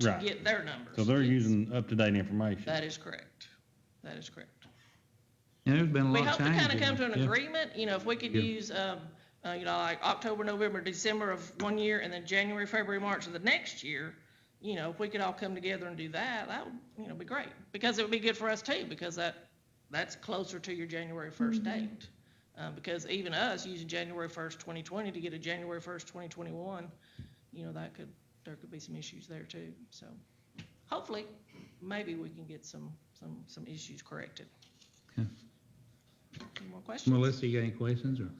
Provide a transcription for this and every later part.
to Right. get their numbers. So they're Yes. using up-to-date information. That is correct. That is correct. And there's been a We lot of hope to changes. kind of come to in it. an Yeah. agreement, you know, if we could Yeah. use, um, uh, you know, like October, November, December of one year, and then January, February, March of the next year, you know, if we could all come together and do that, that would, you know, be great. Because it would be good for us too, because that, that's closer to your January first Mm-hmm. date. Uh, because even us using January first, twenty twenty to get a January first, twenty twenty-one, you know, that could, there could be some issues there too. So hopefully, maybe we can get some, some, some issues corrected. Okay. Any more questions? Melissa, you got any questions or?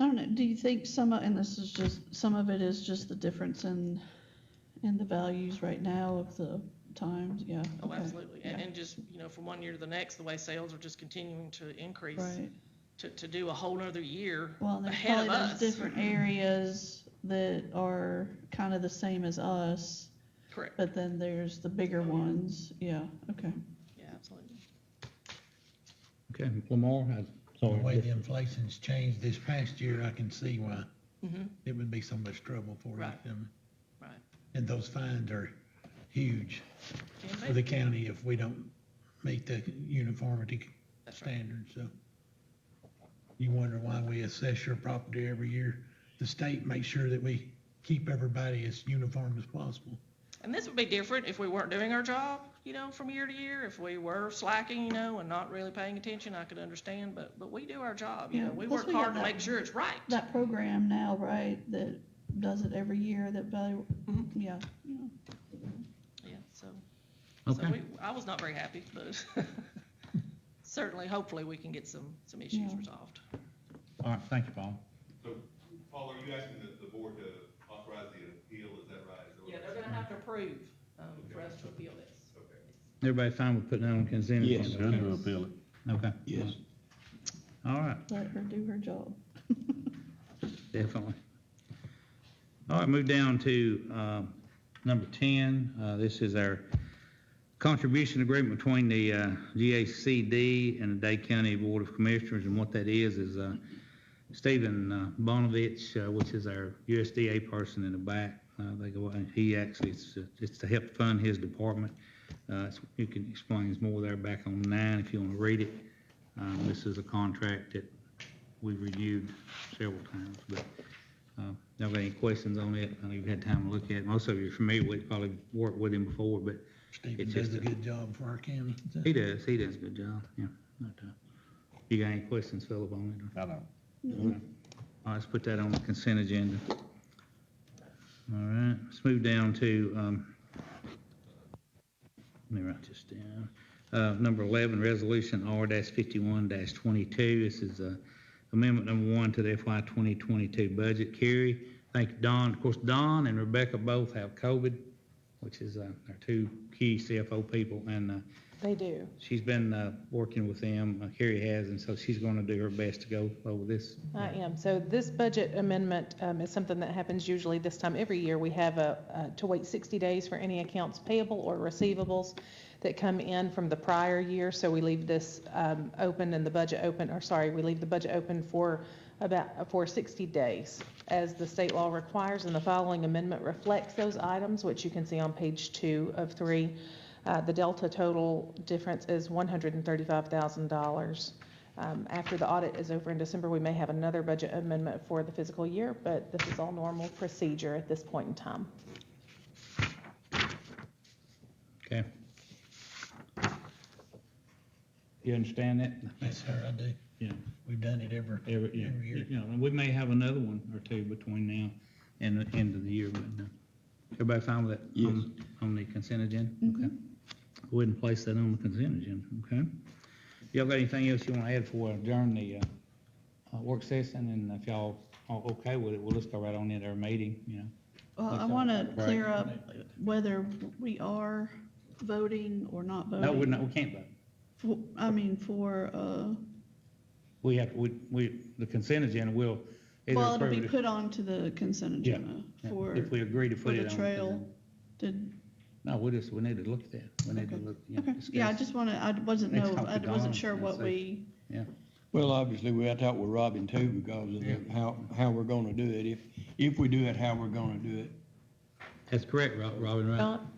I don't know, do you think some, of and this is just, some of it is just the difference in, in the values right now of the times, yeah? Oh, okay, absolutely. And, yeah, and just, you know, from one year to the next, the way sales are just continuing to increase, Right, to, to do a whole nother year well, and there's ahead probably of those us. different areas that are kind of the same as us, Correct. but then there's the Oh, bigger ones, yeah, okay. Yeah, absolutely. Okay, Lamar, I, The So way the inflation's changed this past year, I can see why Mm-hmm. it would be so much trouble for Right. them. Right. And those fines are huge for Can the be. county if we don't meet the uniformity That's right. standards, so. You wonder why we assess your property every year. The state makes sure that we keep everybody as uniform as possible. And this would be different if we weren't doing our job, you know, from year to year. If we were slacking, you know, and not really paying attention, I could understand, but, but we do our job, you Yeah, know. We plus work we got hard to that- make sure it's right. That program now, right, that does it every year, that value, Mhm. yeah, yeah. Yeah, so, so okay, we, I was not very happy, but certainly, hopefully, we can get some, some issues Yeah. resolved. all right, thank you, Paul. So, Paul, are you asking the, the board to authorize the appeal, is that right? Is that what- Yeah, they're gonna have to approve, um, for us to appeal this. Okay. Everybody fine with putting that on consent? Yes. they're agenda? gonna appeal it. Okay. Yes. All right, Let her do her job. definitely. All right, move down to, um, number ten, uh, this is our contribution agreement between the, uh, GACD and the Dade County Board of Commissioners, and what that is, is, uh, Stephen uh, Bonovich, uh, which is our USDA person in the back, uh, they go, and he actually, it's, uh, it's to help fund his department. Uh, it's- you can explains more there back on nine if you want to read it. Um, this is a contract that we reviewed several times, but, uh, y'all got any questions on it? I know you've had time to look at it. Most of you are familiar with, it, probably worked with him before, but Stephen It's does just a a- good job for our county. so. he does, he does a good job, yeah. But, uh, You got any questions, Philip, on it? or- I don't. All right, let's put that on the consent agenda. All right, let's move down to, um, let me write this down. Uh, number 11, Resolution R-51-22. This is, uh, amendment number one to the FY 2022 budget. Carrie, thank you, Don. Of course, Don and Rebecca both have COVID, which is, uh, our two key CFO people, and, uh, They do. she's been, uh, working with them, Uh, Carrie has, and so she's gonna do her best to go over this. I am. So this budget amendment um, is something that happens usually this time every year. We have a, uh, to wait 60 days for any accounts payable or receivables that come in from the prior year. So we leave this um, open and the budget open, or sorry, we leave the budget open for about, for 60 days as the state law requires. And the following amendment reflects those items, which you can see on page two of three. Uh, The delta total difference is $135,000. Um, After the audit is over in December, we may have another budget amendment for the fiscal year, but this is all normal procedure at this point in time. Okay. You understand that? Yes, sir, I do. Yeah. We've done it every, Every, yeah, every year. you know, and we may have another one or two between now and the end of the year, but, uh, everybody fine with that? Yes. On- On the consent agenda? Mm-hmm. Okay. Go ahead and place that on the consent agenda, okay? Y'all got anything else you wanna add for during the, uh, uh, work session, and if y'all are okay with it, we'll just go right on into our meeting, you know? Well, I Like want to that. clear up whether we are voting or not voting. No, we're not, we can't vote. For- I mean, for, uh, We have, we, we, the consent agenda will either well, approve it'll it be if- put on to the consent Yeah, agenda yeah, for, If we agree to for put it the on. trail. Did, No, we just, we need to look at that. We need to Okay. look, you know, okay, yeah, I discuss. just want to, I wasn't Next know, time I to Dawn wasn't sure and what see. we, Well, obviously, we had to talk with Robin too because of the- how, how we're gonna do it. If, if we do it, how we're gonna do it. That's correct, Rob- Robin, right? Don?